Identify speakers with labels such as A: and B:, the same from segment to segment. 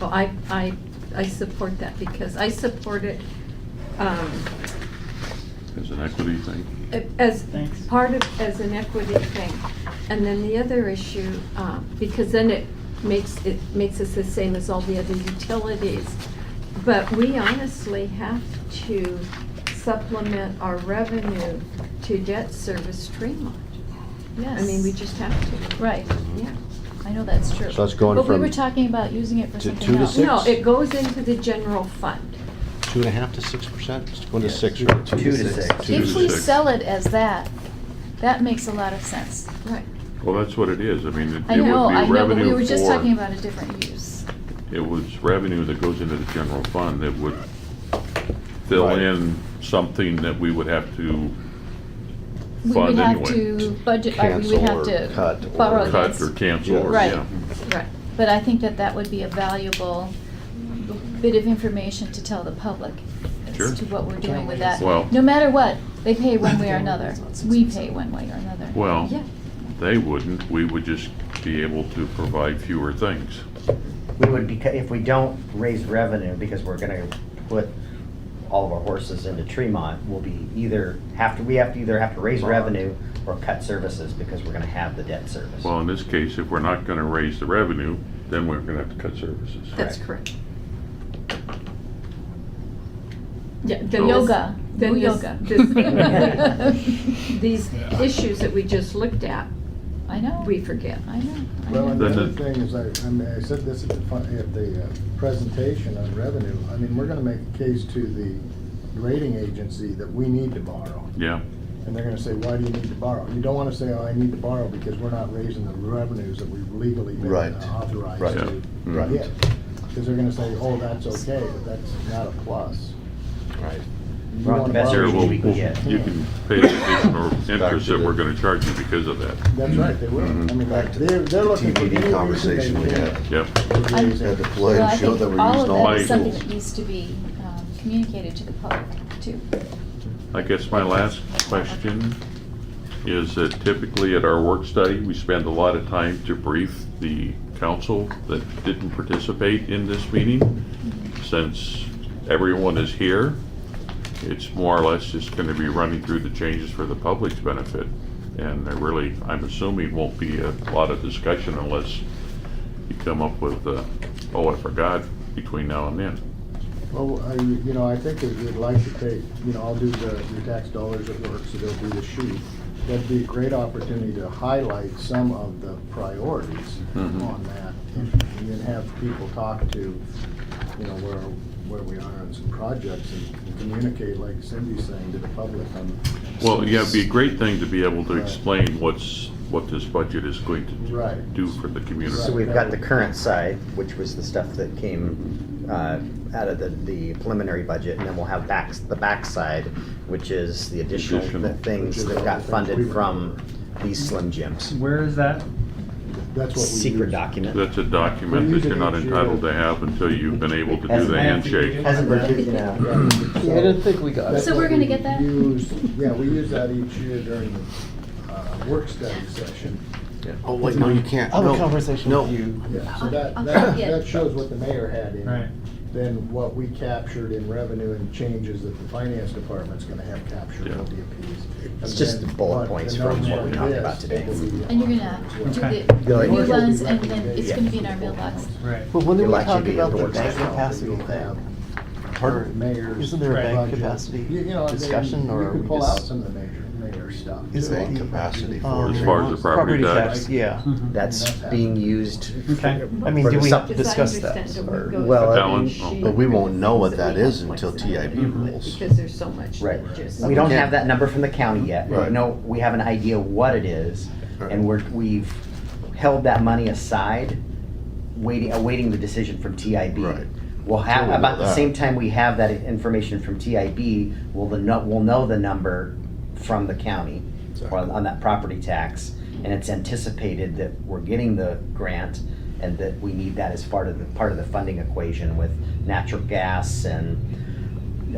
A: Well, I, I, I support that because I support it um,
B: as an equity thing.
A: as
C: Thanks.
A: part of, as an equity thing. And then the other issue, um, because then it makes, it makes us the same as all the other utilities. But we honestly have to supplement our revenue to debt service Tremont.
D: Yes.
A: I mean, we just have to.
D: Right,
A: Yeah.
D: I know that's true.
E: So that's going
D: But we
E: from
D: were talking about using it for
E: to
D: something
E: two to
D: else.
E: six?
A: No, it goes into the general fund.
E: Two and a half to six percent, just going to
F: Yes.
E: six, right?
F: Two to six.
B: Two
D: If
B: to
D: we
B: six.
D: sell it as that, that makes a lot of sense.
A: Right.
B: Well, that's what it is. I mean, it it would
D: I know, I
B: be
D: know, but we
B: revenue
D: were just
B: for-
D: talking about a different use.
B: It was revenue that goes into the general fund that would fill
E: Right.
B: in something that we would have to
D: We would
B: fund
D: have
B: anyway.
D: to budget, or we would have
E: Cancel or
D: to
E: cut
D: borrow
E: or-
B: Cut
D: against.
B: or cancel, or,
D: Right.
B: yeah.
A: Right.
D: But I think that that would be a valuable bit of information to tell the public
B: Sure.
D: as to what we're doing with that.
B: Well-
D: No matter what, they pay one way or another. We pay one way or another.
B: Well,
A: Yeah.
B: they wouldn't. We would just be able to provide fewer things.
F: We would be, if we don't raise revenue, because we're gonna put all of our horses into Tremont, we'll be either, have to, we have to either have to raise revenue or cut services, because we're gonna have the debt service.
B: Well, in this case, if we're not gonna raise the revenue, then we're gonna have to cut services.
A: That's correct. Yeah, then
B: So-
A: this-
D: Yoga,
A: then
D: do
A: this-
D: yoga.
A: this- These issues that we just looked at,
D: I know.
A: we forget.
D: I know. I
G: Well, and
D: know.
G: the
B: Then
G: other
B: the-
G: thing is, I, I mean, I said this at the, fi- at the uh, presentation on revenue, I mean, we're gonna make a case to the rating agency that we need to borrow.
B: Yeah,
G: And they're gonna say, why do you need to borrow? You don't wanna say, oh, I need to borrow because we're not raising the revenues that we've legally been
E: Right.
G: authorized
E: Right.
G: to
B: Yeah. Right.
G: get. Because they're gonna say, oh, that's okay, but that's not a plus.
E: Right.
G: You
F: Well,
G: wanna
F: that's
G: borrow-
B: Here,
F: Sure,
B: we'll-
F: we can
B: we'll-
F: get.
B: you can pay the additional
E: Back
B: interest
E: to
B: that we're
E: the-
B: gonna charge you because of that.
G: That's right, they will.
B: Mhm.
G: I mean,
E: Back to
G: they're, they're
E: the
G: looking for
E: TBD
G: any
E: conversation we had.
B: Yep.
E: Had to play
D: Well, I
E: and show
D: think
E: that we're
D: all of
E: using all
D: that
E: the
D: is
B: my
D: something
E: tools.
D: that needs to be um, communicated to the public, too.
B: I guess my last question is that typically at our work study, we spend a lot of time to brief the council that didn't participate in this meeting. Since everyone is here, it's more or less just gonna be running through the changes for the public's benefit. And there really, I'm assuming won't be a lot of discussion unless you come up with, uh, oh, I forgot, between now and then.
G: Well, I, you know, I think that we'd like to take, you know, I'll do the, your tax dollars at work, so they'll do the sheet. That'd be a great opportunity to highlight some of the priorities
B: Mhm.
G: on that. And then have people talk to, you know, where, where we are on some projects and communicate, like Cindy's saying, to the public on.
B: Well, yeah, it'd be a great thing to be able to explain what's, what this budget is going to
G: Right.
B: do for the community.
F: So we've got the current side, which was the stuff that
B: Mm-hmm.
F: came uh, out of the the preliminary budget, and then we'll have backs, the backside, which is the additional
B: Additional.
F: th- things that got funded from these Slim Jims.
C: Where is that?
G: That's what we
F: Secret
G: use.
F: document.
B: That's a document that you're not entitled to have until you've been able to do the handshake.
F: Hasn't been taken out.
E: Yeah, I didn't think we got.
G: That's
D: So we're
G: what
D: gonna
G: we
D: get that?
G: use- Yeah, we use that each year during the uh, work study session.
E: Oh, wait, no, you can't.
H: I'll have a
E: No,
H: conversation
E: no.
H: with you.
G: Yeah, so
D: I'll-
G: that,
D: I'll
G: that,
D: get-
G: that shows what the mayor had in.
C: Right.
G: it. Then what we captured in revenue and changes that the finance department's gonna have captured
B: Yeah.
G: in DPs.
F: It's just the bullet points from what we talked about today.
D: And you're gonna do
C: Okay.
F: Go
D: the
F: ahead.
D: new ones, and then it's gonna be in our mailbox.
C: Right.
H: But when do
F: You'll
H: we
F: actually
H: talk
F: be
H: about the
F: endorsed.
H: bank capacity
G: Have
H: thing?
G: current Mayors.
H: Isn't there a
C: Right.
G: budget.
H: bank
G: You- you
H: capacity
G: know, they-
H: discussion or?
G: You
H: are
G: could
H: we
G: pull out
H: just-
G: some of the major, mayor stuff.
H: Is
G: too.
H: it-
E: Bank capacity for.
H: um,
B: As far as the property tax.
H: Yeah.
C: Mm-hmm.
F: That's being used.
C: Okay.
H: I mean,
F: for
H: do
F: the
H: we
F: sup-
A: As I
H: discuss that?
A: understand it,
H: or-
A: we go
F: Well,
A: through
B: Balance.
A: each sheet
E: But we won't know what
A: that
E: that
A: we have
E: is until
A: flexibility
E: TIB
A: with,
E: rules.
A: Because there's so much
F: Right.
A: that just.
F: We don't have that number from the county yet. We
E: Right.
F: know, we have an idea what it is, and we're, we've held that money aside, waiting, awaiting the decision from TIB.
E: Right.
F: We'll have,
E: Totally
F: about the
E: that.
F: same time we have that information from TIB, we'll, the no- we'll know the number from the county on, on that property tax, and it's anticipated that we're getting the grant, and that we need that as part of the, part of the funding equation with natural gas and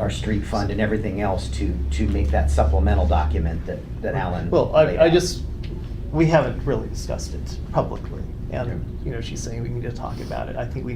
F: our street fund and everything else to, to make that supplemental document that, that Alan.
H: Well, I,
F: laid
H: I
F: out.
H: just, we haven't really discussed it publicly. And, you know, she's saying we need to talk about it. I think we